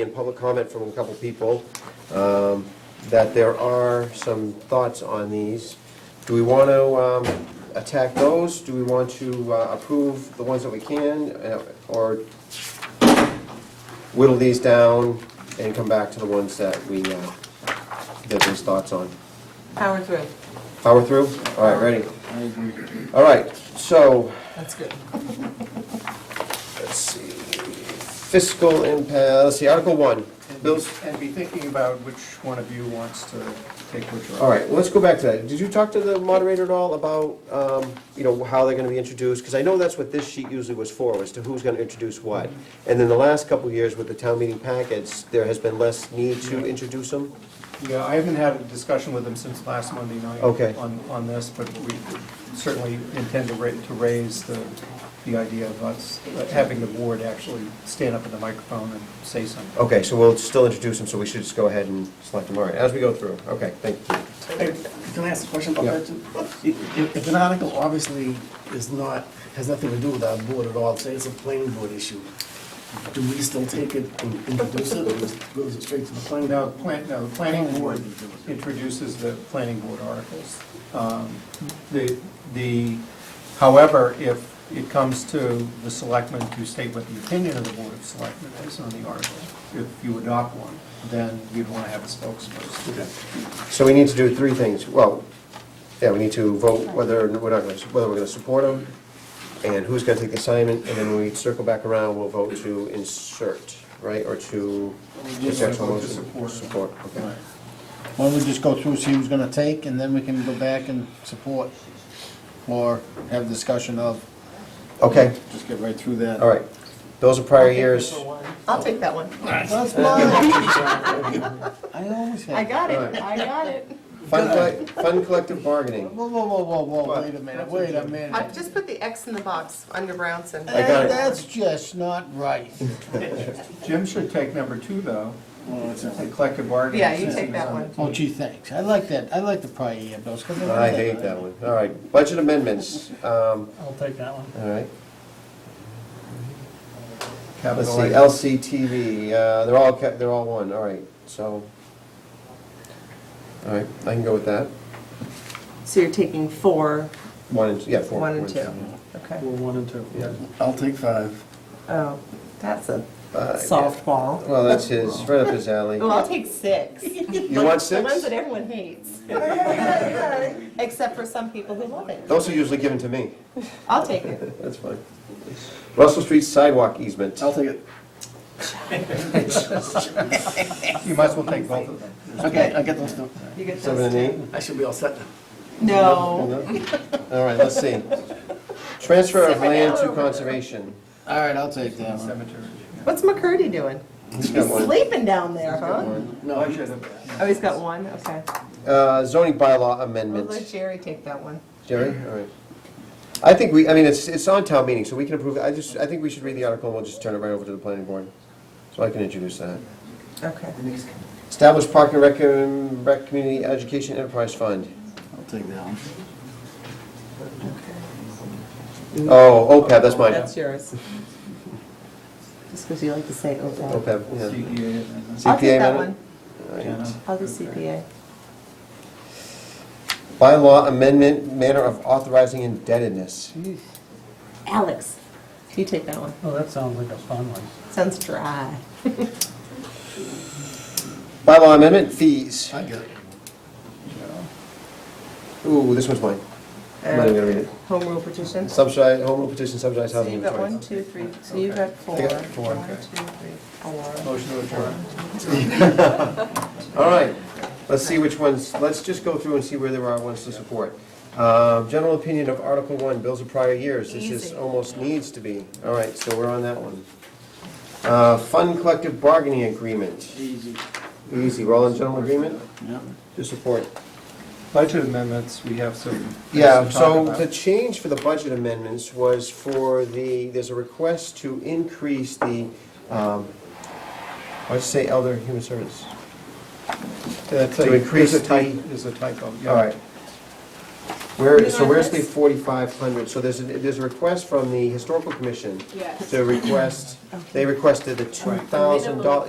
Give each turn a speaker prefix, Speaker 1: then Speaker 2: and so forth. Speaker 1: in public comment from a couple people, um, that there are some thoughts on these. Do we want to um, attack those? Do we want to uh, approve the ones that we can, uh, or whittle these down and come back to the ones that we, uh, that there's thoughts on?
Speaker 2: Power through,
Speaker 1: Power through? All right, ready?
Speaker 3: I agree.
Speaker 1: All right, so,
Speaker 2: that's good.
Speaker 1: let's see, fiscal impact, let's see, Article 1,
Speaker 3: And be-
Speaker 1: bills.
Speaker 3: And be thinking about which one of you wants to take which one.
Speaker 1: All right, well, let's go back to that. Did you talk to the moderator at all about, um, you know, how they're gonna be introduced? Because I know that's what this sheet usually was for, was to who's gonna introduce what. And then the last couple of years with the town meeting packets, there has been less need to introduce them?
Speaker 3: Yeah, I haven't had a discussion with them since last Monday night.
Speaker 1: Okay.
Speaker 3: On, on this, but we certainly intend to ra, to raise the, the idea of us uh, having the board actually stand up at the microphone and say something.
Speaker 1: Okay, so we'll still introduce them, so we should just go ahead and select them, all right, as we go through. Okay, thank you.
Speaker 4: Hey, Can I ask a question about
Speaker 1: Yeah.
Speaker 4: that? too? If if an article obviously is not, has nothing to do with our board at all, say it's a planning board issue, do we still take it and introduce it, or is- goes it straight to the planning?
Speaker 3: No, plan, no, the planning board introduces the planning board articles. Um, The, the, however, if it comes to the selectmen to state what the opinion of the board of selectmen is on the article, if you adopt one, then you'd want to have a spokesperson.
Speaker 4: Okay.
Speaker 1: So we need to do three things. Well, yeah, we need to vote whether, we're not gonna, whether we're gonna support them, and who's gonna take the assignment, and then when we circle back around, we'll vote to insert, right, or to.
Speaker 3: Yes,
Speaker 1: just actual
Speaker 3: vote to
Speaker 1: motion?
Speaker 3: support.
Speaker 1: Support, okay.
Speaker 5: Why don't we just go through, see who's gonna take, and then we can go back and support or have discussion of,
Speaker 1: Okay,
Speaker 5: just get right through that.
Speaker 1: all right. Those are prior years.
Speaker 2: I'll take that one.
Speaker 5: That's mine. I always have.
Speaker 2: I got it, I got it.
Speaker 1: Fund, collec- fund collective bargaining.
Speaker 5: Whoa, whoa, whoa, whoa, whoa, wait a minute,
Speaker 3: That's
Speaker 5: wait a
Speaker 3: okay.
Speaker 5: minute.
Speaker 2: I've just put the X in the box under Brownson.
Speaker 1: I got it.
Speaker 5: That's just not right.
Speaker 3: Jim should take number two, though,
Speaker 4: Well, it's
Speaker 3: the
Speaker 4: a-
Speaker 3: collective bargaining.
Speaker 2: Yeah, you take
Speaker 3: system.
Speaker 2: that one.
Speaker 5: Oh gee, thanks, I like that, I like the prior year bills, 'cause they're
Speaker 1: I
Speaker 5: not
Speaker 1: hate that one. All right, budget amendments, um,
Speaker 6: I'll take that one.
Speaker 1: all right. Let's
Speaker 3: Capital
Speaker 1: see,
Speaker 3: A.
Speaker 1: LCTV, uh, they're all, ca- they're all one, all right, so. All right, I can go with that.
Speaker 2: So you're taking four,
Speaker 1: One and, yeah, four.
Speaker 2: one and
Speaker 1: four
Speaker 2: two, okay.
Speaker 6: We're one and two.
Speaker 1: Yeah.
Speaker 4: I'll take five.
Speaker 2: Oh, that's a
Speaker 1: Five,
Speaker 2: softball.
Speaker 1: Well, that's his, right up his alley.
Speaker 2: Well, I'll take six.
Speaker 1: You want
Speaker 2: The ones
Speaker 1: six?
Speaker 2: that everyone hates. Except for some people who love it.
Speaker 1: Those are usually given to me.
Speaker 2: I'll take it.
Speaker 1: That's fine. Russell Street sidewalk easement.
Speaker 4: I'll take it.
Speaker 3: You might as well take both of them.
Speaker 4: Okay, I get those two.
Speaker 2: You get
Speaker 1: Seven
Speaker 2: those.
Speaker 1: and eight?
Speaker 4: I should be all set now.
Speaker 2: No.
Speaker 1: All right, let's see. Transfer of
Speaker 2: Seven
Speaker 1: land to
Speaker 2: over.
Speaker 1: conservation.
Speaker 5: All right, I'll take that one.
Speaker 3: Cemetery.
Speaker 2: What's McCurdy doing?
Speaker 1: He's got
Speaker 2: He's
Speaker 1: one.
Speaker 2: sleeping down there, huh?
Speaker 1: One.
Speaker 4: No,
Speaker 3: I
Speaker 4: I
Speaker 3: should have.
Speaker 2: Oh, he's got one, okay.
Speaker 1: Uh, zoning bylaw
Speaker 2: We'll let
Speaker 1: amendment.
Speaker 2: Jerry take that one.
Speaker 1: Jerry, all right. I think we, I mean, it's, it's on town meeting, so we can approve, it. I just, I think we should read the article and we'll just turn it right over to the planning board. So I can introduce that.
Speaker 2: Okay.
Speaker 1: Establish park and rec, um, rec community education enterprise fund.
Speaker 5: I'll take that one.
Speaker 1: Oh, OPEB, that's mine.
Speaker 2: That's yours. Just because you like to say OPEB.
Speaker 1: OPEB, E
Speaker 4: E
Speaker 1: yeah.
Speaker 3: CPA amendments.
Speaker 2: I'll
Speaker 1: CPA
Speaker 2: take that
Speaker 1: amendment?
Speaker 2: one.
Speaker 3: Jenna.
Speaker 2: I'll do CPA.
Speaker 1: Bylaw amendment, manner of authorizing indebtedness.
Speaker 2: Alex, you take that one.
Speaker 6: Oh, that sounds like a fun one.
Speaker 2: Sounds dry.
Speaker 1: Bylaw amendment, fees.
Speaker 4: I get it.
Speaker 1: Ooh, this one's mine. I'm not even gonna read it.
Speaker 2: Uh, Home rule petition. So
Speaker 1: Subsidized, home rule petition, subsidized housing.
Speaker 2: you've got
Speaker 1: inventory.
Speaker 2: one, two, three, so you've got four.
Speaker 1: I got four,
Speaker 2: One, two,
Speaker 1: okay.
Speaker 2: three, four.
Speaker 3: Motion to adjourn.
Speaker 1: All right, let's see which ones, let's just go through and see where there are ones to support. Um, General opinion of Article One, bills of prior years, this is
Speaker 2: Easy.
Speaker 1: almost needs to be, all right, so we're on that one. Uh, Fund collective bargaining agreement. Easy. Easy, we're all in general agreement?
Speaker 5: Yep.
Speaker 1: To support.
Speaker 3: Budget amendments, we have some. things to
Speaker 1: Yeah,
Speaker 3: talk
Speaker 1: so
Speaker 3: about.
Speaker 1: the change for the budget amendments was for the, there's a request to increase the, um, I'd say elder human service.
Speaker 3: That's
Speaker 1: to
Speaker 3: a-
Speaker 1: increase
Speaker 3: there's a type-
Speaker 1: the-
Speaker 3: There's a typo, yeah.
Speaker 1: All right. Where,
Speaker 2: You
Speaker 1: so
Speaker 2: want
Speaker 1: where's the
Speaker 2: this?
Speaker 1: forty-five hundred? So there's, a there's a request from the historical commission
Speaker 2: Yes.
Speaker 1: to request, they requested the two thousand dollar,